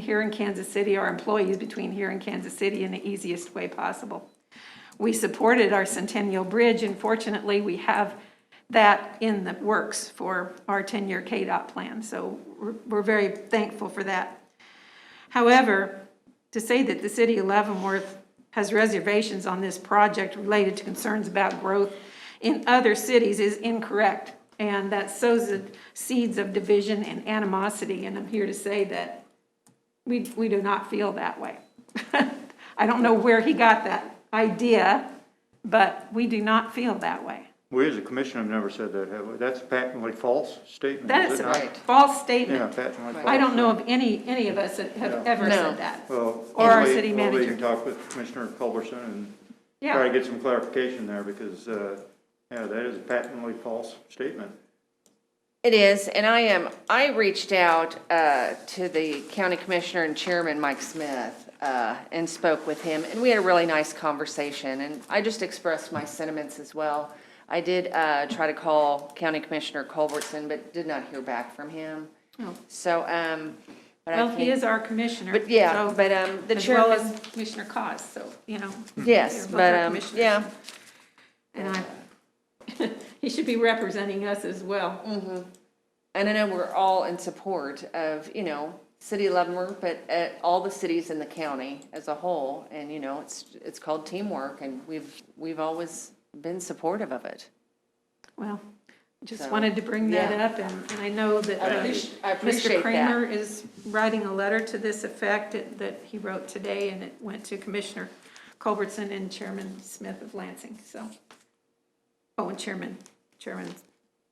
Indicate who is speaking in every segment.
Speaker 1: here in Kansas City, our employees between here and Kansas City in the easiest way possible. We supported our Centennial Bridge, and fortunately, we have that in the works for our 10-year KDOT plan, so we're- we're very thankful for that. However, to say that the city of Leavenworth has reservations on this project related to concerns about growth in other cities is incorrect, and that sows the seeds of division and animosity, and I'm here to say that we, we do not feel that way. I don't know where he got that idea, but we do not feel that way.
Speaker 2: We as a commission have never said that, have we? That's a patently false statement,
Speaker 1: That
Speaker 2: is
Speaker 1: is
Speaker 2: it
Speaker 1: a
Speaker 2: not?
Speaker 1: false
Speaker 2: Yeah,
Speaker 1: statement.
Speaker 2: patently false.
Speaker 1: I don't know of any, any of us that have ever
Speaker 3: No.
Speaker 1: said that.
Speaker 2: Well,
Speaker 1: Or our
Speaker 2: anyway,
Speaker 1: city
Speaker 2: well, we
Speaker 1: manager.
Speaker 2: can talk with Commissioner Culberson and try to
Speaker 1: Yeah,
Speaker 2: get some clarification there because, uh, yeah, that is a patently false statement.
Speaker 3: It is, and I am, I reached out uh, to the county commissioner and chairman, Mike Smith, uh, and spoke with him, and we had a really nice conversation, and I just expressed my sentiments as well. I did uh, try to call County Commissioner Culbertson, but did not hear back from him.
Speaker 1: Oh.
Speaker 3: So, um, but I
Speaker 1: well, he
Speaker 3: think,
Speaker 1: is our commissioner.
Speaker 3: but yeah,
Speaker 1: so-
Speaker 3: but um, the
Speaker 1: As well
Speaker 3: chairman,
Speaker 1: as Commissioner Cos, so, you know. they're
Speaker 3: yes,
Speaker 1: both
Speaker 3: but,
Speaker 1: our
Speaker 3: um,
Speaker 1: commissioners.
Speaker 3: yeah,
Speaker 1: And I, he should be representing us as well.
Speaker 3: And I know we're all in support of, you know, City of Leavenworth, but uh, all the cities in the county as a whole. And, you know, it's, it's called teamwork and we've, we've always been supportive of it.
Speaker 1: Well, just
Speaker 3: So,
Speaker 1: wanted to bring that
Speaker 3: yeah.
Speaker 1: up, and, and I know that
Speaker 3: I
Speaker 1: uh,
Speaker 3: appreci- I
Speaker 1: Mr.
Speaker 3: appreciate that.
Speaker 1: Kramer is writing a letter to this effect that- that he wrote today, and it went to Commissioner Culbertson and Chairman Smith of Lansing, so. Oh, and Chairman, Chairman,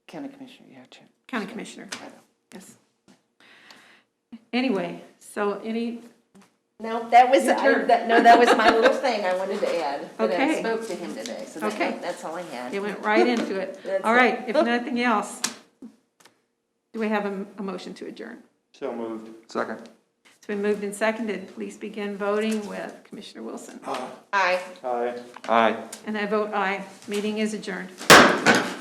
Speaker 3: County Commissioner, yeah, Chair.
Speaker 1: County Commissioner,
Speaker 3: I know.
Speaker 1: yes. Anyway, so any,
Speaker 3: No, that was,
Speaker 1: Your
Speaker 3: I-
Speaker 1: turn.
Speaker 3: that- no, that was my little thing I wanted to add. But I
Speaker 1: Okay.
Speaker 3: spoke to him today, so
Speaker 1: Okay.
Speaker 3: that- that's all I had.
Speaker 1: it went right into it.
Speaker 3: That's
Speaker 1: All
Speaker 3: it.
Speaker 1: right, if nothing else, do we have a, a motion to adjourn?
Speaker 2: So moved.
Speaker 4: Second.
Speaker 1: It's been moved and seconded. Please begin voting with Commissioner Wilson.
Speaker 3: Aye.
Speaker 2: Aye.
Speaker 4: Aye.
Speaker 1: And I vote aye. Meeting is adjourned.